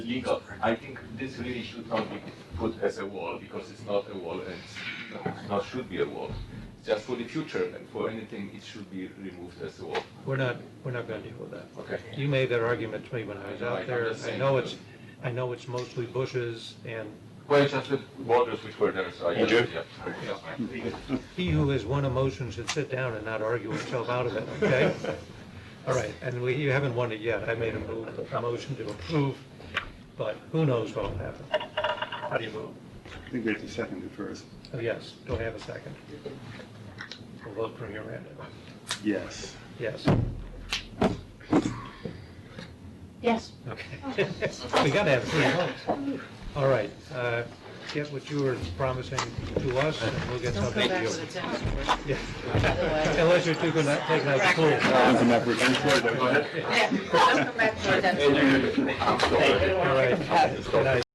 legal. I think this really should not be put as a wall because it's not a wall and it's not should be a wall. Just for the future and for anything, it should be removed as a wall. We're not, we're not gonna deal with that. Okay. You made that argument to me when I was Right, out I'm there. just I saying. know it's, I know it's mostly bushes, and Well, it's just the borders which were there, so I. Andrew? Yeah. he who has won a motion should sit down and not argue himself out of it, okay? All right, and we, you haven't won it yet. I made a move, a motion to approve, but who knows what'll happen? How do you move? I think we have to second it first. Oh, yes, do I have a second? We'll vote for your end. Yes. Yes, Yes. okay. We gotta have three votes. All right, uh, get what you were promising to us, and we'll get Don't go something to back you. to the tennis court. Yeah. Unless you're too good at taking out the pool. Don't come back, we're going forward. Yeah, don't come back to our tennis court. Andrew, I'm sorry. All right. Good night.